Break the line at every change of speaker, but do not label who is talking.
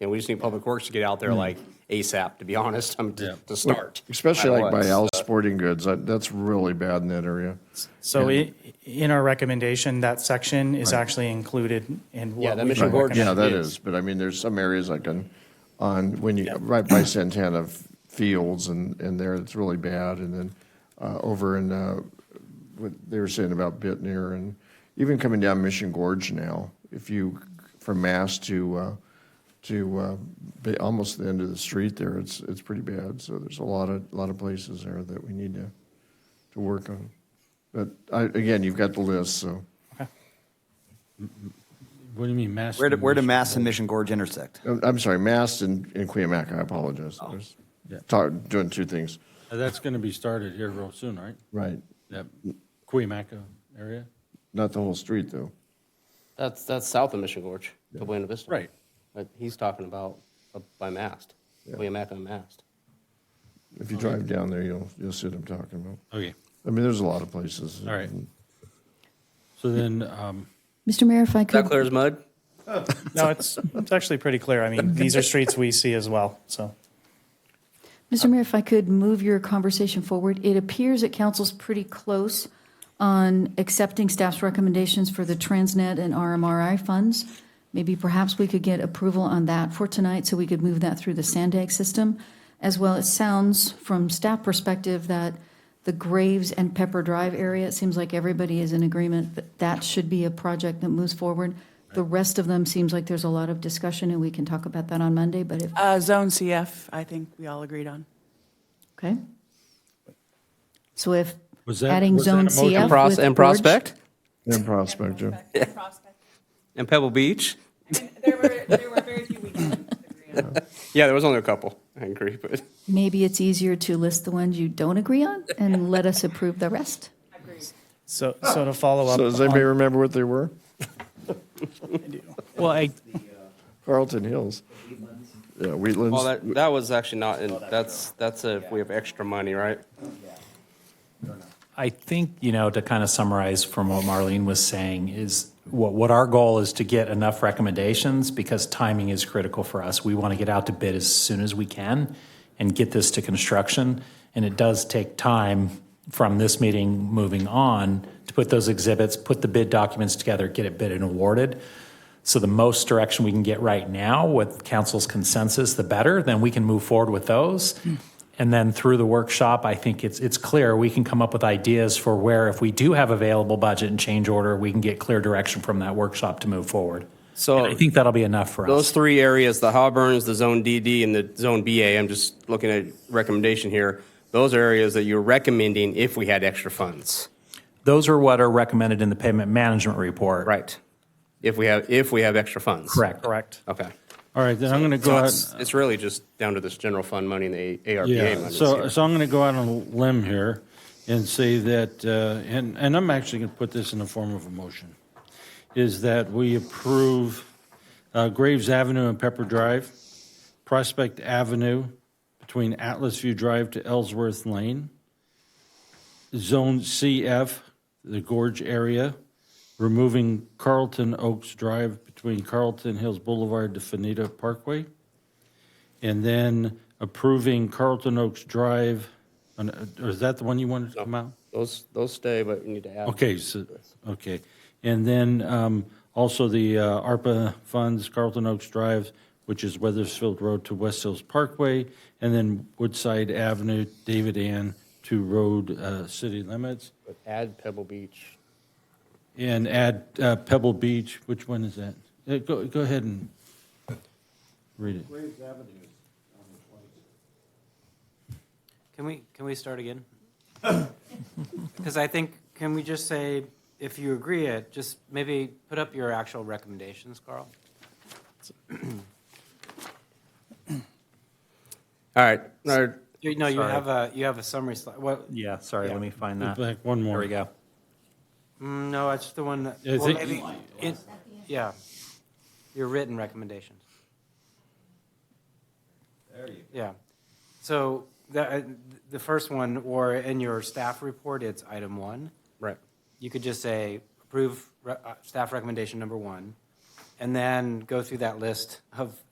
And we just need Public Works to get out there like ASAP, to be honest, um, to to start.
Especially like by
Otherwise,
Al's Sporting Goods, that- that's really bad in that area.
So i- in our recommendation, that section is actually included in
Yeah,
what
that
we
mission
should
board
Yeah, that
is.
is, but I mean, there's some areas like on, on, when you, right by Santana Fields and, and there, it's really bad. And then uh, over in, uh, what they were saying about Bitner and even coming down Mission Gorge now, if you, from Mass to, uh, to uh, ba- almost the end of the street there, it's, it's pretty bad. So there's a lot of, lot of places there that we need to, to work on. But I, again, you've got the list, so.
What do you mean, mass?
Where do, where do
damage?
Mass and Mission Gorge intersect?
I'm Uh, I'm sorry, Mast and, and Cuyamaca, I apologize. I was
Yeah.
ta- doing two things.
Uh, That's going to be started here real soon, right?
Right.
That
Mm.
Cuyamaca area?
Not the whole street, though.
That's, that's south of Mission Gorge, to Buena Vista.
Right.
But he's talking about up by Mast, Williamac on Mast.
If you drive down there, you'll, you'll see what I'm talking about.
Okay,
I mean, there's a lot of places.
all right. So then, um,
Mr. Mayor, if I
Is that
could,
clear as mud?
No, it's, it's actually pretty clear. I mean, these are streets we see as well, so.
Mr. Mayor, if I could move your conversation forward, it appears that council's pretty close on accepting staff's recommendations for the Transnet and RMRI funds. Maybe perhaps we could get approval on that for tonight, so we could move that through the Sandag system. As well, it sounds from staff perspective that the Graves and Pepper Drive area, it seems like everybody is in agreement that that should be a project that moves forward. The rest of them seems like there's a lot of discussion, and we can talk about that on Monday, but if,
Uh, Zone CF, I think we all agreed on.
Okay. So if
Was that-
adding
was that a
zone
motion? And
CF with
And
Gorge-
Prospect,
In Prospector.
and Pebble Beach.
There were, there were very few weekends.
Yeah, there was only a couple, I agree, but.
Maybe it's easier to list the ones you don't agree on and let us approve the rest.
So, so to follow up.
So does anybody
on-
remember what they were?
Well, I,
Carlton Hills. Yeah,
Well,
Wheatlands.
that, that was actually not, in that's, that's a, we have extra money, right?
I think, you know, to kind of summarize from what Marlene was saying is what, what our goal is to get enough recommendations because timing is critical for us. We want to get out to bid as soon as we can and get this to construction. And it does take time from this meeting moving on to put those exhibits, put the bid documents together, get it bid and awarded. So the most direction we can get right now with council's consensus, the better, then we can move forward with those. And then through the workshop, I think it's, it's clear, we can come up with ideas for where if we do have available budget and change order, we can get clear direction from that workshop to move forward.
So-
And I think that'll be enough for
Those
us.
three areas, the Hawburns, the Zone DD, and the Zone BA, I'm just looking at recommendation here. Those are areas that you're recommending if we had extra funds.
Those are what are recommended in the payment management report.
Right. If we have, if we have extra funds.
Correct.
correct.
Okay.
all right, then I'm going to go
So
out.
it's, it's really just down to this general fund money and the ARPA
Yeah,
money.
so, so I'm going to go out on a limb here and say that, uh, and, and I'm actually going to put this in the form of a motion, is that we approve uh, Graves Avenue and Pepper Drive, Prospect Avenue between Atlas View Drive to Ellsworth Lane, Zone CF, the Gorge area, removing Carlton Oaks Drive between Carlton Hills Boulevard to Fanita Parkway, and then approving Carlton Oaks Drive, and, uh, or is that the one you wanted to come out?
Those, those stay, but we need to add.
Okay, so, okay. And then um, also the uh, ARPA funds, Carlton Oaks Drive, which is Weathersfield Road to West Hills Parkway, and then Woodside Avenue, David Ann to Road uh, City Limits,
But Add Pebble Beach.
and add uh, Pebble Beach, which one is that? Uh, Go, go ahead and read it.
Can we, can we start again? Because I think, can we just say, if you agree it, just maybe put up your actual recommendations, Carl?
All right, all right.
You know, you
Sorry.
have a, you have a summary slide, what,
Yeah, sorry, let me find that.
Back one more.
There we go.
mm, no, it's the one, that-
Yeah, I
well,
think-
maybe, it- yeah, your written recommendations. There you go. Yeah, so the, the first one, or in your staff report, it's item one.
Right.
you could just say, approve re- uh, staff recommendation number one, and then go through that list of